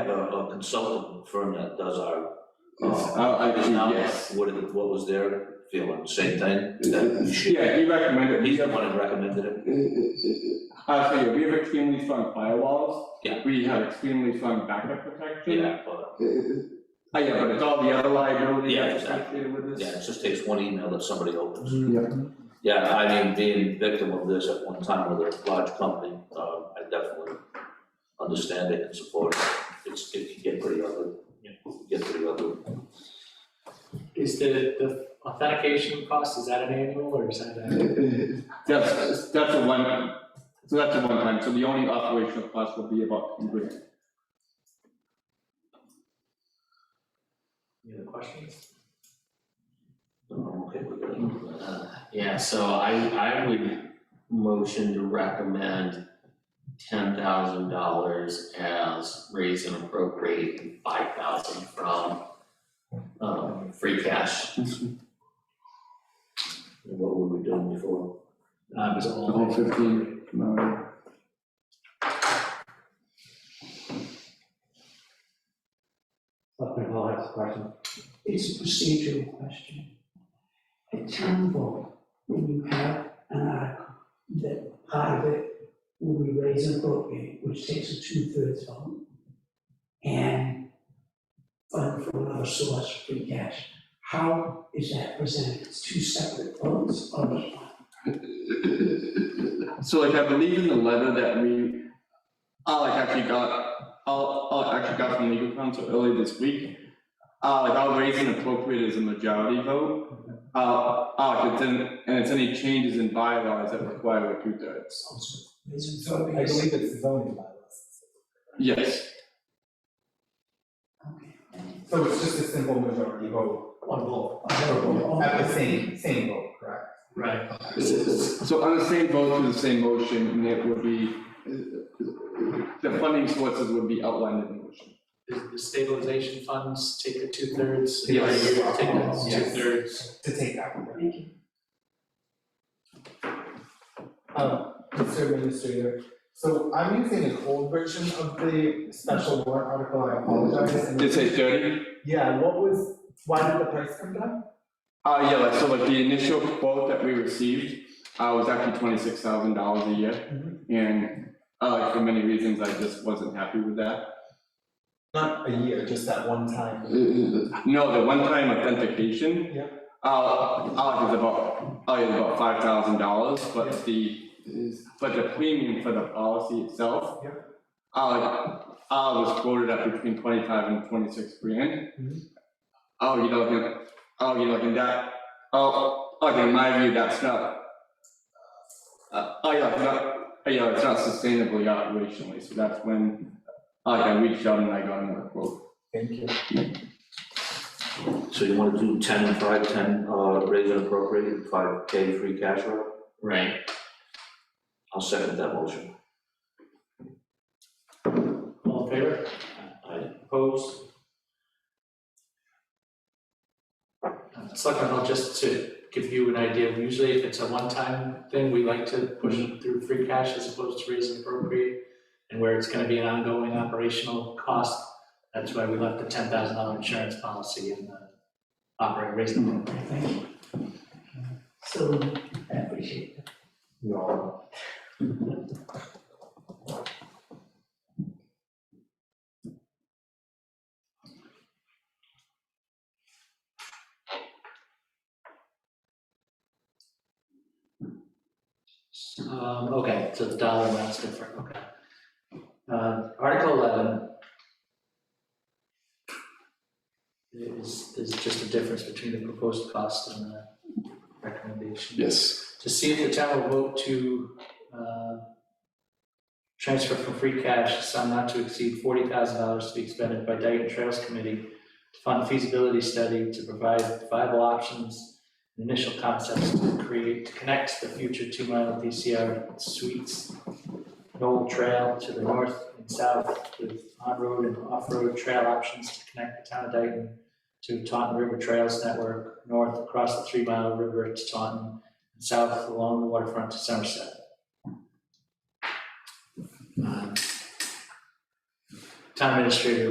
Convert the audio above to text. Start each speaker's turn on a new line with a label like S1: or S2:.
S1: a, a consultant firm that does our.
S2: Yes,
S1: uh,
S2: uh, I do,
S1: now,
S2: yes.
S1: What, did- what was their feeling, same thing? That we should-
S2: Yeah, he recommended.
S1: He's the one that recommended it?
S2: Uh, so yeah, we have extremely strong firewalls.
S1: Yeah.
S2: We have extremely strong backup protection.
S1: but,
S2: Uh, yeah, but it's all the other liability
S1: Yeah,
S2: that's
S1: exactly.
S2: associated with
S1: Yeah,
S2: this.
S1: it just takes one email that somebody opens.
S2: Yeah.
S1: Yeah, I mean, being victim of this at one time with a large company, uh, I definitely understand it and support it. It's, it can get pretty ugly, it can get pretty ugly.
S3: Is the, the authentication cost, is that an annual or is that a?
S2: That's, that's a one, so that's a one time, so the only operational cost will be about ten grand.
S3: Any other questions?
S1: I'm okay with it. Uh,
S4: Yeah, so I, I would motion to recommend ten thousand dollars as raise and appropriate and five thousand from um, free cash.
S1: And What were we doing before?
S3: Um, is it all?
S2: The whole fifteen, no,
S5: Selectman Hull has a question. It's a procedural question. At town vote, when you have an article, that part of it will be raised and appropriate, which takes a two-thirds vote, and fund from another source, free cash. How is that presented? It's two separate votes, or is it one?
S2: so like I believe in the letter that we, I like actually got, I'll, I'll actually got from legal counsel early this week. Uh, like I'll raise and appropriate as a majority vote, uh, uh, if it's in, and it's any changes in bylaws that require a two thirds.
S5: Raise and
S6: So I
S5: appropriate.
S6: believe it's zoning bylaws.
S2: Yes,
S5: Okay.
S6: So it's just a simple majority vote
S3: One vote.
S6: at the same, same vote, correct?
S3: Right.
S2: so on the same vote to the same motion, and it would be, uh, the funding sources would be outlined in the motion.
S3: Does the stabilization funds take a two-thirds?
S2: Yes.
S3: Take a
S6: Yes.
S3: two-thirds.
S6: To take that one.
S5: Thank you.
S6: Um, Mr. Administrator, so I'm using an old version of the special warrant article, I apologize. and-
S2: Did it say thirty?
S6: Yeah, what was, why did the price come down?
S2: Uh, yeah, like, so like the initial quote that we received, uh, was actually twenty-six thousand dollars a year. And, uh, like, for many reasons, I just wasn't happy with that.
S6: Not a year, just that one time.
S2: No, the one-time authentication.
S6: Yeah.
S2: Uh, uh, is about, uh, is about five thousand dollars,
S6: Yeah.
S2: but the, but the premium for the policy itself.
S6: Yeah.
S2: Uh, like, uh, was quoted at between twenty-five and twenty-six grand.
S6: Mhm.
S2: Oh, you know, like, oh, you know, like, and that, oh, like, in my view, that's not Uh, oh, yeah, it's not, oh, yeah, it's not sustainably operationally, so that's when, uh, like, I reached out and I got another quote.
S6: Thank you.
S1: So you wanna do ten and five, ten, uh, raise and appropriate, five K free cash flow?
S4: Right,
S1: I'll second that motion.
S3: All in favor?
S1: I,
S3: Opposed? Uh, Selectman Hull, just to give you an idea, usually if it's a one-time thing, we like to push it through free cash as opposed to raise and appropriate. And where it's gonna be an ongoing operational cost, that's why we left the ten thousand dollar insurance policy in the operating raise and appropriate.
S5: Thank you. So, I appreciate it.
S6: No.
S3: Um, okay, so the dollar amount's different, okay. Uh, Article eleven. Is, is just a difference between the proposed cost and the recommendation.
S2: Yes.
S3: To see if the town will vote to, uh, transfer from free cash a sum not to exceed forty thousand dollars to be expended by Dayton Trails Committee to fund a feasibility study to provide viable options, and initial concepts to create, to connect the future two mile DCR suites, Knoll Trail to the north and south with on-road and off-road trail options to connect the town of Dayton to Taunton River Trails Network, north across the three mile river to Taunton, and south along the waterfront to Somerset. Um, Uh, Town administrator